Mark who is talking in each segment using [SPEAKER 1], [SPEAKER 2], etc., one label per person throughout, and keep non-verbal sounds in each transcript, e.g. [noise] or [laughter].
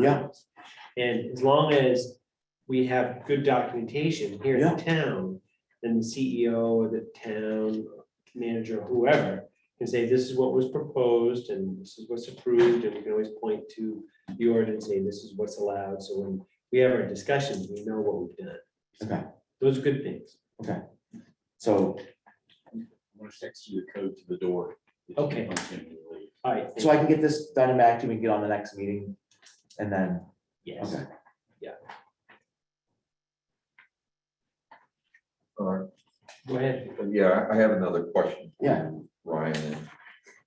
[SPEAKER 1] Yeah.
[SPEAKER 2] And as long as we have good documentation here in town, then the CEO or the town manager, whoever, can say, this is what was proposed and this is what's approved, and we can always point to the ordinance, say, this is what's allowed, so when we have our discussions, we know what we've done.
[SPEAKER 1] Okay.
[SPEAKER 2] Those are good things.
[SPEAKER 1] So,
[SPEAKER 3] I'm gonna text you the code to the door.
[SPEAKER 2] Okay. All right.
[SPEAKER 1] so I can get this done and back to you, we can get on the next meeting, and then,
[SPEAKER 2] Yes.
[SPEAKER 1] okay.
[SPEAKER 4] All right,
[SPEAKER 2] Go ahead.
[SPEAKER 4] Uh, yeah, I have another question.
[SPEAKER 1] Yeah.
[SPEAKER 4] Ryan, and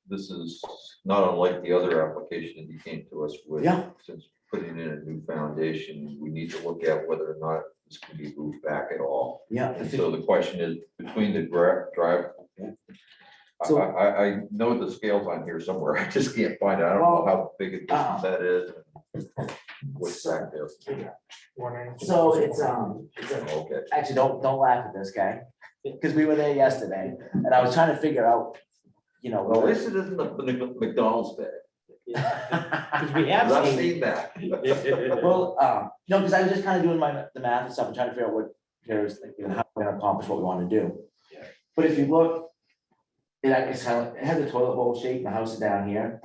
[SPEAKER 4] this is not unlike the other application that you came to us with.
[SPEAKER 1] Yeah.
[SPEAKER 4] Since putting in a new foundation, we need to look at whether or not this can be moved back at all.
[SPEAKER 1] Yeah, I
[SPEAKER 4] And
[SPEAKER 1] think-
[SPEAKER 4] so the question is, between the gra- drive. I,
[SPEAKER 1] So-
[SPEAKER 4] I, I know the scales on here somewhere, [laughs] I just can't find it, I don't know how big a
[SPEAKER 1] uh-huh.
[SPEAKER 4] distance that is. What's that there?
[SPEAKER 1] so it's, um, it's a-
[SPEAKER 4] Okay,
[SPEAKER 1] actually, don't, don't laugh at this guy, because we were there yesterday, and I was trying to figure out, you know,
[SPEAKER 4] well,
[SPEAKER 1] what
[SPEAKER 4] at least
[SPEAKER 1] was.
[SPEAKER 4] it isn't the McDonald's bag,
[SPEAKER 2] Because we have
[SPEAKER 4] I've
[SPEAKER 2] seen.
[SPEAKER 4] seen that.
[SPEAKER 1] [laughs] Well, um, no, because I was just kind of doing my, the math and stuff and trying to figure out what, there's, like, you know, how we're gonna accomplish what we want to do.
[SPEAKER 2] Yeah.
[SPEAKER 1] But if you look, it act- it's kind of, it has a toilet bowl shape, the house is down here.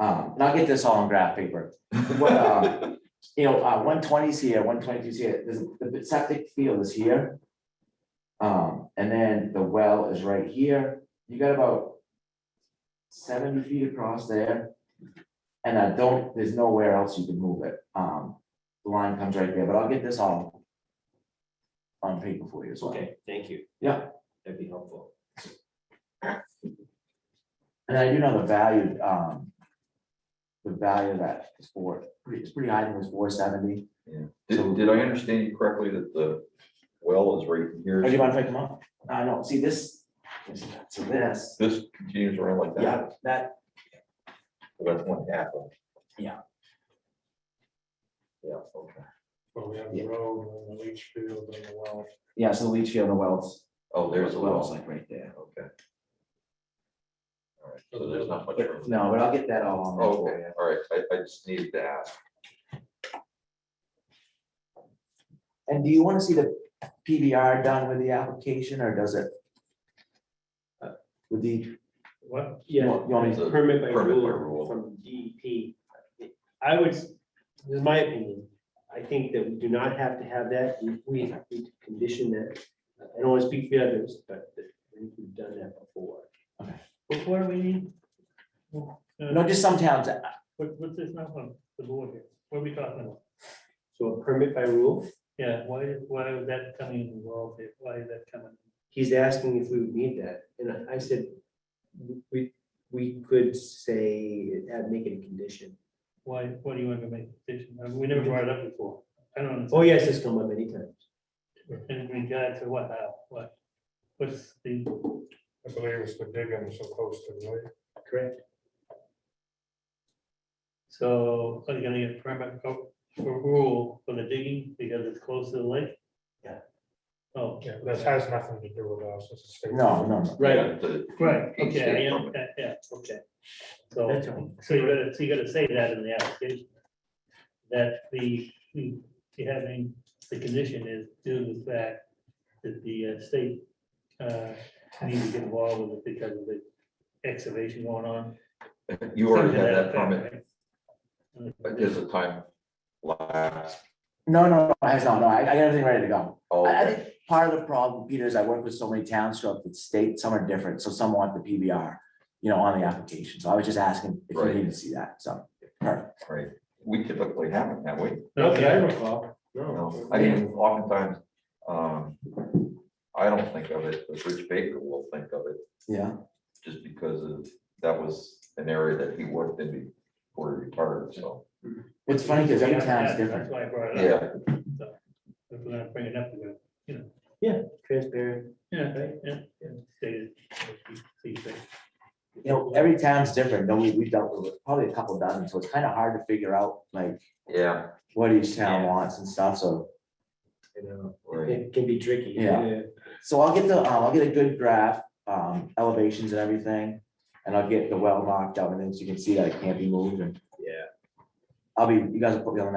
[SPEAKER 1] Um, and I'll get this all on graph paper. What, uh, you know, uh, one twenty's here, one twenty-two's here, there's, the septic field is here. Um, and then the well is right here, you got about seventy feet across there. And I don't, there's nowhere else you can move it. Um, the line comes right there, but I'll get this all on paper for you as well.
[SPEAKER 2] Okay, thank you.
[SPEAKER 1] Yeah.
[SPEAKER 2] That'd be helpful.
[SPEAKER 1] And I do know the value, um, the value of that is four, it's pretty high, I think it was four seventy.
[SPEAKER 4] Yeah.
[SPEAKER 1] So-
[SPEAKER 4] Did, did I understand you correctly that the well is right here?
[SPEAKER 1] Oh, do you mind if I come up? I know, see this, so this,
[SPEAKER 4] This continues around like
[SPEAKER 1] yeah,
[SPEAKER 4] that,
[SPEAKER 1] that,
[SPEAKER 4] so that's one half of. it.
[SPEAKER 1] Yeah.
[SPEAKER 4] Yeah, okay,
[SPEAKER 5] Well, we have the road and the leach field and the well.
[SPEAKER 1] yeah, so the leach field and the wells.
[SPEAKER 4] oh, there's a
[SPEAKER 1] Wells
[SPEAKER 4] well,
[SPEAKER 1] like right there.
[SPEAKER 4] okay. All right, so there's not much. room.
[SPEAKER 1] No, but I'll get that all on. there
[SPEAKER 4] Oh,
[SPEAKER 1] for
[SPEAKER 4] Okay, all right, I, I just needed to ask.
[SPEAKER 1] you. And do you wanna see the PBR done with the application or does it? With the,
[SPEAKER 2] What?
[SPEAKER 1] you
[SPEAKER 2] Yeah.
[SPEAKER 1] want you want me to-
[SPEAKER 4] The
[SPEAKER 2] Permit by
[SPEAKER 4] permit
[SPEAKER 2] rule
[SPEAKER 4] by rule.
[SPEAKER 2] from DEP. I would, this is my opinion, I think that we do not have to have that, We- we have to condition that. I don't want to speak for the others, but I think we've done that before.
[SPEAKER 1] Okay.
[SPEAKER 2] Before we need,
[SPEAKER 1] no, just some towns, uh,
[SPEAKER 5] What, what's this now from the board here? What are we talking about?
[SPEAKER 2] so a permit by rule,
[SPEAKER 5] Yeah, why, why is that coming involved here? Why is that coming?
[SPEAKER 2] he's asking if we would need that, and I- I said, we, we could say, uh, make it a condition.
[SPEAKER 5] Why, why do you want to make a decision? I mean, We never brought it up before. I don't
[SPEAKER 2] Oh,
[SPEAKER 5] understand.
[SPEAKER 2] yes, it's come up many times.
[SPEAKER 5] In regard to what, how, what? What's the,
[SPEAKER 6] I believe it's the digging so close to the lake.
[SPEAKER 2] Correct.
[SPEAKER 5] so are you gonna get permit for for rule for the digging because it's close to the lake?
[SPEAKER 2] Yeah.
[SPEAKER 5] Oh,
[SPEAKER 6] Yeah, that has nothing to do with us. It's a state.
[SPEAKER 1] no, no, no,
[SPEAKER 5] right,
[SPEAKER 4] Yeah, the-
[SPEAKER 5] right,
[SPEAKER 4] each
[SPEAKER 5] okay,
[SPEAKER 4] state
[SPEAKER 5] yeah,
[SPEAKER 4] permit.
[SPEAKER 5] yeah, yeah, okay. So.
[SPEAKER 2] That's right.
[SPEAKER 5] So you gotta, so you gotta say that in the application. That the, the, you having, the condition is due to the fact that the uh, state uh, needs to get involved with it because of the excavation going on.
[SPEAKER 4] You already
[SPEAKER 5] Something
[SPEAKER 4] had
[SPEAKER 5] to
[SPEAKER 4] that
[SPEAKER 5] effect,
[SPEAKER 4] permit,
[SPEAKER 5] right?
[SPEAKER 4] but there's a time lapse.
[SPEAKER 1] no, no, no, I have not, no, I I got everything ready to go.
[SPEAKER 4] Oh,
[SPEAKER 1] I, I
[SPEAKER 4] okay.
[SPEAKER 1] think part of the problem, Peter, is I work with so many towns throughout the state, some are different, so some want the PBR, you know, on the application, so I was just asking if you
[SPEAKER 4] Right.
[SPEAKER 1] need to see that, so. perfect.
[SPEAKER 4] right, we typically haven't, have we?
[SPEAKER 2] Not that I
[SPEAKER 5] Okay.
[SPEAKER 2] recall,
[SPEAKER 4] No,
[SPEAKER 2] no.
[SPEAKER 4] I mean, oftentimes, um, I don't think of it, but Rich Baker will think of it,
[SPEAKER 1] Yeah,
[SPEAKER 4] just because of, that was an area that he worked in before he retired, so.
[SPEAKER 1] it's funny because
[SPEAKER 5] We
[SPEAKER 1] every
[SPEAKER 5] haven't
[SPEAKER 1] town is
[SPEAKER 5] had it,
[SPEAKER 1] different.
[SPEAKER 5] That's why I brought it up.
[SPEAKER 4] Yeah,
[SPEAKER 5] If we're gonna bring it up, we're gonna,
[SPEAKER 2] Transparent.
[SPEAKER 5] yeah, right, yeah, yeah, state it. So you say-
[SPEAKER 1] You know, every town's different, though we, we've dealt with probably a couple dozen, so it's kind of hard to figure out like
[SPEAKER 4] yeah,
[SPEAKER 1] what each town
[SPEAKER 2] Yeah.
[SPEAKER 1] wants and stuff, so.
[SPEAKER 2] you know,
[SPEAKER 4] right.
[SPEAKER 2] it can be tricky.
[SPEAKER 1] Yeah. So I'll get the, um, I'll get a good graph, um, elevations and everything, and I'll get the well marked out, and then so you can see that it can't be moved and
[SPEAKER 2] Yeah.
[SPEAKER 1] I'll be, you guys will put me on the